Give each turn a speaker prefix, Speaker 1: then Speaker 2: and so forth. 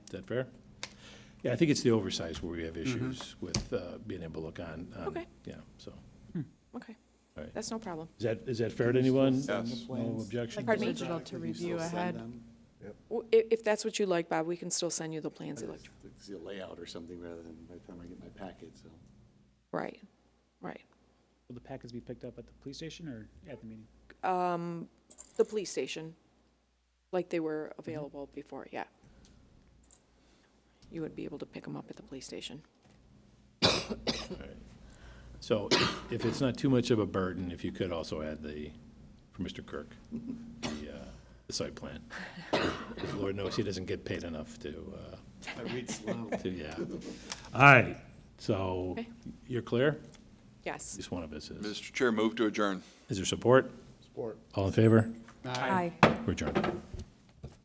Speaker 1: that fair? Yeah, I think it's the oversize where we have issues with uh, being able to look on. on-
Speaker 2: Okay.
Speaker 1: Yeah, so,
Speaker 2: Okay,
Speaker 1: all right.
Speaker 2: that's no problem.
Speaker 1: Is that, is that fair to anyone?
Speaker 3: send the Yes.
Speaker 1: No
Speaker 3: plans?
Speaker 1: objection?
Speaker 2: Pardon me?
Speaker 4: Digital to
Speaker 3: Can you still
Speaker 4: review
Speaker 3: send
Speaker 4: ahead.
Speaker 3: them?
Speaker 2: W- i- If that's what you like, Bob, we can still send you the plans
Speaker 3: I just-
Speaker 2: electronically.
Speaker 3: it's a layout or something rather than by the time I get my packet, so.
Speaker 2: Right, right.
Speaker 5: Will the packets be picked up at the police station or at the meeting?
Speaker 2: The police station, like they were
Speaker 4: Mm-hmm.
Speaker 2: available before, yeah. You would be able to pick them up at the police station.
Speaker 1: So if- if it's not too much of a burden, if you could also add the, for Mr. Kirk, the, uh, the site plan. 'Cause Lord knows he doesn't get paid enough to, uh,
Speaker 3: I read slow.
Speaker 1: to, yeah. All right, so
Speaker 2: Okay.
Speaker 1: you're clear? At
Speaker 2: Yes.
Speaker 1: least one of us is.
Speaker 6: Mr. Chair, move to adjourn.
Speaker 1: Is there support? Support. All in favor?
Speaker 4: Aye.
Speaker 1: We're adjourned.